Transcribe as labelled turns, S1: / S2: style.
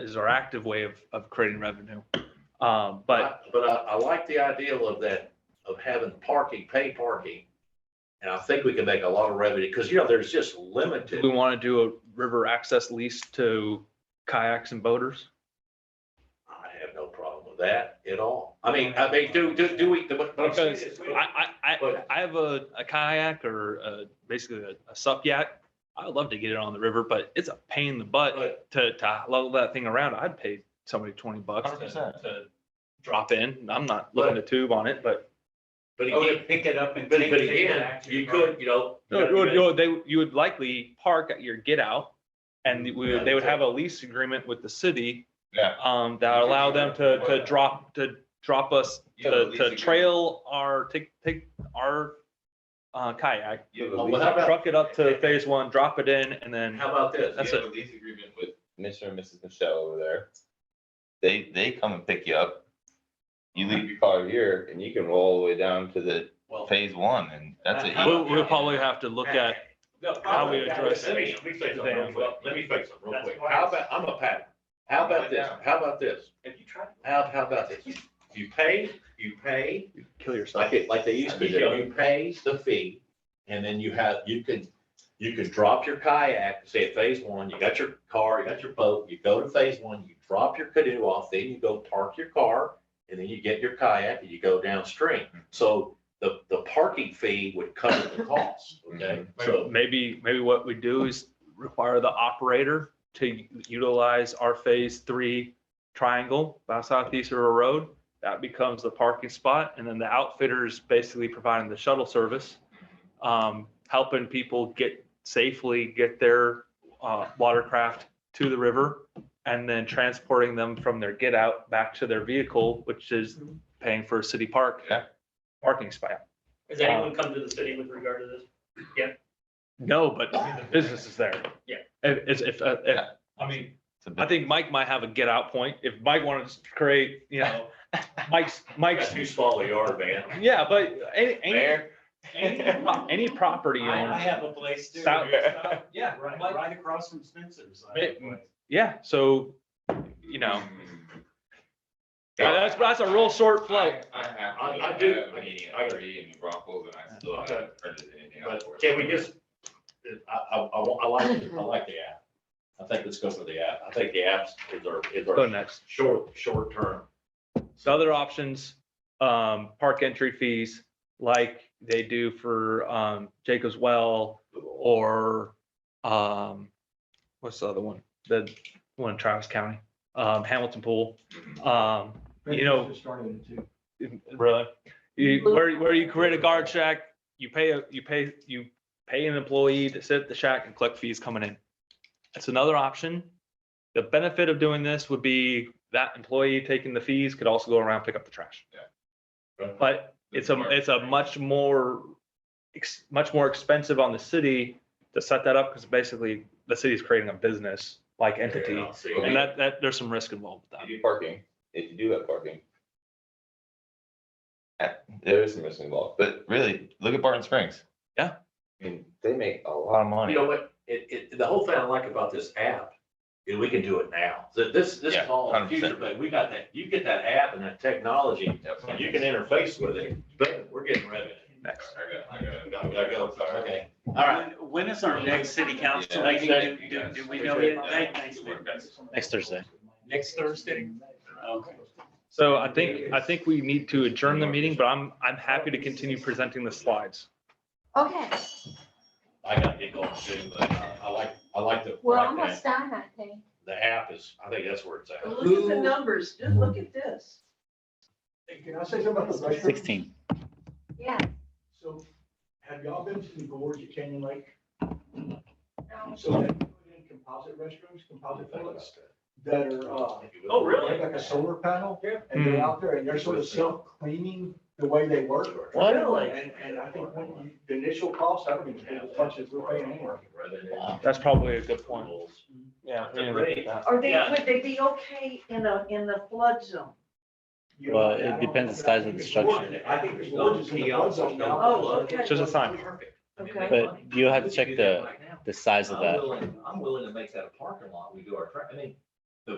S1: is our active way of, of creating revenue. Um, but
S2: But I, I like the idea of that, of having parking, paid parking. And I think we can make a lot of revenue, because you know, there's just
S1: do
S2: limited,
S1: we want to do a river access lease to kayaks and boaters?
S2: I have no problem with that at all. I mean, I mean, do, do, do we, but. but I'm saying
S1: Because
S2: is we
S1: I,
S2: don't-
S1: I, I,
S2: But-
S1: I have a, a kayak or uh basically a, a sup yak. I would love to get it on the river, but it's a pain in the butt
S2: But
S1: to, to level that thing around. I'd pay somebody twenty bucks to,
S3: 100%.
S1: to drop in. I'm not looking to tube on it, but
S2: but
S1: Oh,
S4: Oh,
S5: Or to
S2: again,
S5: pick it up and.
S2: but,
S5: take
S2: but
S5: it to the
S2: again,
S5: action
S2: you
S5: department.
S2: could, you know.
S1: No,
S2: you
S1: you would- you
S2: know,
S1: would- they, you would likely park at your get out and we, would- they would have a lease agreement with the city.
S3: Yeah.
S1: Um, that allow them to, to drop, to drop us,
S3: You have a
S1: to,
S3: lease
S1: to
S3: agreement.
S1: trail our, take, take our uh, kayak,
S3: You have
S2: Oh,
S3: a
S2: well,
S3: lease,
S2: how about-
S1: truck it up to phase one, drop it in and then,
S2: How about this?
S1: that's
S3: you have a lease agreement with Mr. and Mrs. Michelle over there. They, they come and pick you up. You leave your car here and you can roll all the way down to the
S2: Well,
S3: phase one and that's it.
S1: we'll, we'll probably have to look at,
S2: No,
S1: how we address
S2: let me-
S1: it.
S2: Let me say something real quick. Let me say something real quick. How about, I'm a pattern. How about this? How about this?
S5: Have you tried?
S2: How, how about this? You pay, you pay,
S1: kill yourself.
S2: like it, like they used to do, you pay the fee. And then you have, you can, you can drop your kayak, say at phase one, you got your car, you got your boat, you go to phase one, you drop your canoe off, then you go park your car. And then you get your kayak and you go downstream. So the, the parking fee would cover the cost, okay?
S1: Mm-hmm.
S2: So.
S1: Maybe, maybe what we do is require the operator to utilize our phase three triangle by Southeast River Road. That becomes the parking spot and then the outfitter is basically providing the shuttle service, um, helping people get safely get their, uh, watercraft to the river and then transporting them from their get out back to their vehicle, which is paying for a city park.
S3: Yeah.
S1: Parking spot.
S4: Has anyone come to the city with regard to this?
S1: No, but the business is there.
S4: Yeah.
S1: If, if- if, uh, if,
S3: Yeah.
S1: I mean,
S3: It's a
S1: I
S3: bit-
S1: think Mike might have a get out point. If Mike wanted to create, you know, Mike's, Mike's,
S2: too small a yard, man.
S1: yeah, but any, any,
S3: Mayor?
S1: any pro- any property
S5: I, I
S1: owner.
S5: have a place too.
S1: South-
S5: Yeah, right,
S1: Mike-
S5: right across from Spencer's. I have a place.
S1: Yeah, so, you know, that's, that's a real short flow.
S3: I have,
S2: I- I do-
S3: have a meeting at three in Rockville and I still haven't heard anything. out
S2: But
S3: for it.
S2: can we just, I, I, I wa- I like, I like the app. I think let's go for the app. I think the apps is our, is
S1: Go
S2: our
S1: next.
S2: short, short term.
S1: So other options, um, park entry fees, like they do for, um, Jacob's Well or, um, what's the other one? The one in Travis County, um, Hamilton Pool, um, you know. Really? You, where, where you create a guard shack, you pay, a you pay, you pay an employee to sit at the shack and collect fees coming in. That's another option. The benefit of doing this would be that employee taking the fees could also go around and pick up the trash. But it's a, it's a much more, ex- much more expensive on the city to set that up because basically the city's creating a business like entity. And that, that, there's some risk involved with that.
S3: You do parking, if you do have parking. Uh, There is some risk involved, but really, look at Barton Springs.
S1: Yeah.
S3: I mean, they make a lot of
S2: You
S3: money.
S2: know what, it, it, the whole thing I like about this app, is we can do it now. Th- This, this
S3: Yeah,
S2: is all the
S3: 100%.
S2: future, but we got that, you get that app and that technology, and you can interface with it, but we're getting revenue.
S1: Next.
S3: I got, I
S2: We
S3: got.
S2: gotta go. Okay, all right.
S5: When- When is our next city council
S3: Yeah.
S5: meeting? Do, do- do we know yet? Thank- thanks.
S4: Next Thursday.
S5: Next Thursday? Okay.
S1: So I think, I think we need to adjourn the meeting, but I'm, I'm happy to continue presenting the slides.
S6: Okay,
S2: I gotta get going soon, but uh, I like, I like the,
S6: we're
S2: like
S6: almost
S2: that.
S6: done, I think.
S2: the app is, I think that's where it's at.
S7: Look at the numbers, just look at this.
S8: Can I say something about the vice versa?
S4: Sixteen.
S6: Yeah.
S8: So have y'all been to the gorge at Canyon Lake?
S6: um,
S8: So they put in composite restrooms, composite toilets that are, uh,
S5: Oh, really?
S8: like a solar panel. And
S4: Hmm.
S8: they're out there and they're sort of self-cleaning the way they work.
S5: Really?
S8: And, and I think when you- the initial cost, I don't even think as much as we're paying anywhere.
S1: That's probably a good point. Yeah.
S2: we didn't look at
S7: Are they,
S5: Yeah.
S7: would they be okay in a, in the flood zone?
S8: You
S4: Well,
S8: know,
S4: it
S8: I don't-
S4: depends the size of the structure.
S8: I think the gorge is in the flood zone now.
S7: Oh, okay.
S1: Just a sign.
S7: Okay.
S4: But you'll have to check the, the size of that.
S2: I'm willing to make that a parking lot. We do our, tra- I mean,